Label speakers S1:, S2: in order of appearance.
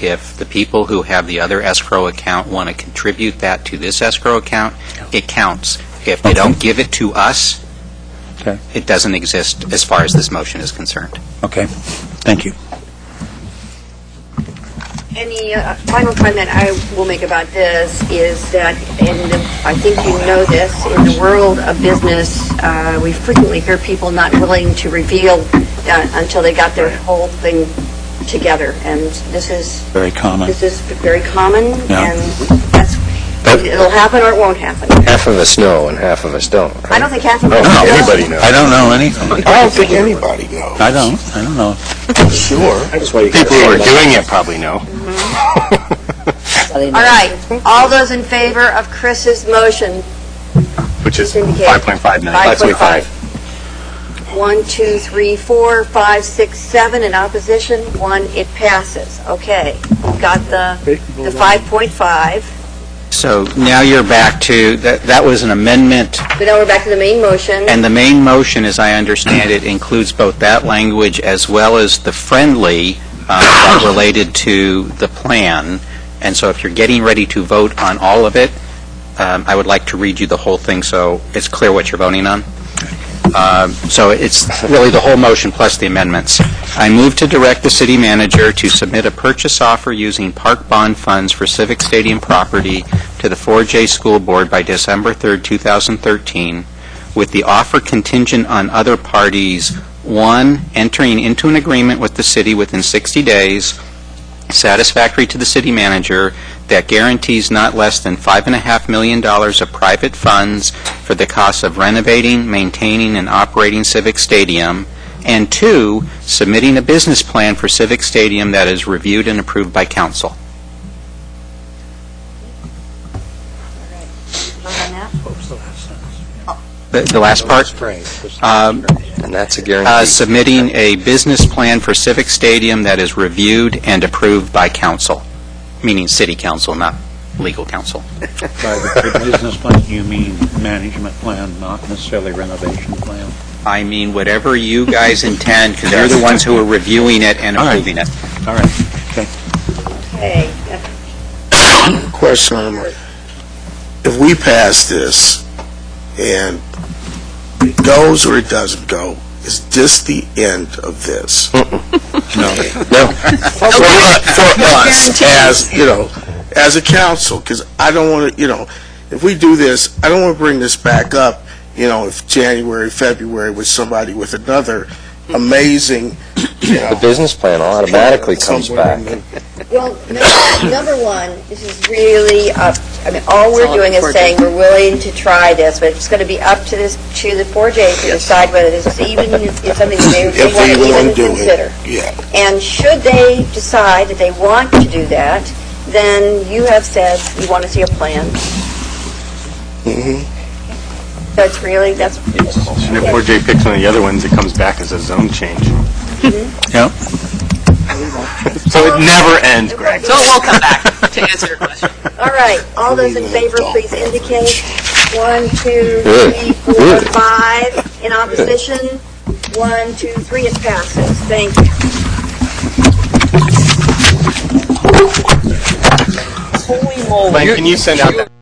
S1: If the people who have the other escrow account want to contribute that to this escrow account, it counts. If they don't give it to us,
S2: Okay.
S1: it doesn't exist as far as this motion is concerned.
S2: Okay, thank you.
S3: Any uh, final comment I will make about this is that, and I think you know this, in the world of business, uh, we frequently hear people not willing to reveal uh, until they got their whole thing together, and this is,
S2: Very common.
S3: this is very common,
S2: Yeah.
S3: and that's,
S4: But-
S3: it'll happen or it won't happen.
S4: Half of us know and half of us don't. right?
S3: I don't think half of
S4: I
S3: us.
S4: don't think anybody knows.
S2: I don't know anything.
S5: I don't think anybody knows.
S2: I don't, I don't know.
S5: Sure. That's why you
S4: People who are doing it probably know.
S3: All right, all those in favor of Chris's motion,
S4: Which is
S3: Indicate.
S4: 5.5 million.
S3: 5.5. One, two, three, four, five, six, seven in opposition, one, it passes. Okay, we've got the, the 5.5,
S1: So now you're back to, that that was an amendment,
S3: but now we're back to the main motion.
S1: and the main motion, as I understand it, includes both that language as well as the friendly uh, that related to the plan. And so if you're getting ready to vote on all of it, um, I would like to read you the whole thing so it's clear what you're voting on. Um, So it's really the whole motion plus the amendments. I move to direct the city manager to submit a purchase offer using park bond funds for Civic Stadium property to the 4J School Board by December 3rd, 2013, with the offer contingent on other parties, one, entering into an agreement with the city within 60 days, satisfactory to the city manager, that guarantees not less than $5.5 million of private funds for the costs of renovating, maintaining, and operating Civic Stadium, and two, submitting a business plan for Civic Stadium that is reviewed and approved by council. The the last part? Um,
S4: And that's a
S1: uh,
S4: guarantee.
S1: submitting a business plan for Civic Stadium that is reviewed and approved by council, meaning city council, not legal council.
S2: By the business plan, you mean management plan, not necessarily renovation plan?
S1: I mean, whatever you guys intend, because you're the ones who are reviewing it and
S2: All right.
S1: approving it.
S2: All right, okay.
S3: Okay,
S5: Question. If we pass this and it goes or it doesn't go, is this the end of this?
S4: Mm.
S5: No.
S4: Uh,
S5: For for us, as, you know, as a council, because I don't want to, you know, if we do this, I don't want to bring this back up, you know, if January, February with somebody with another amazing, you know.
S4: The business plan automatically comes
S5: somewhere in
S4: back.
S5: the-
S3: well, number- number one, this is really up, I mean, all we're doing is saying we're willing to try this, but it's going to be up to this, to the 4J to decide whether this is even, is something that they
S5: If we
S3: they want
S5: want to
S3: to even
S5: do
S3: consider.
S5: it, yeah.
S3: And should they decide that they want to do that, then you have said you want to see a plan.
S5: Mhm.
S3: That's really, that's,
S4: And if 4J picks one of the other ones, it comes back as a zone change.
S3: Mm-hmm.
S2: Yep.
S4: So it never ends, Greg.
S6: So it will come back to answer your question.
S3: all right, all those in favor, please indicate. One, two, three, four, five. In opposition, one, two, three, it passes. Thank you.
S6: Holy moly.
S4: Mike, can you send out that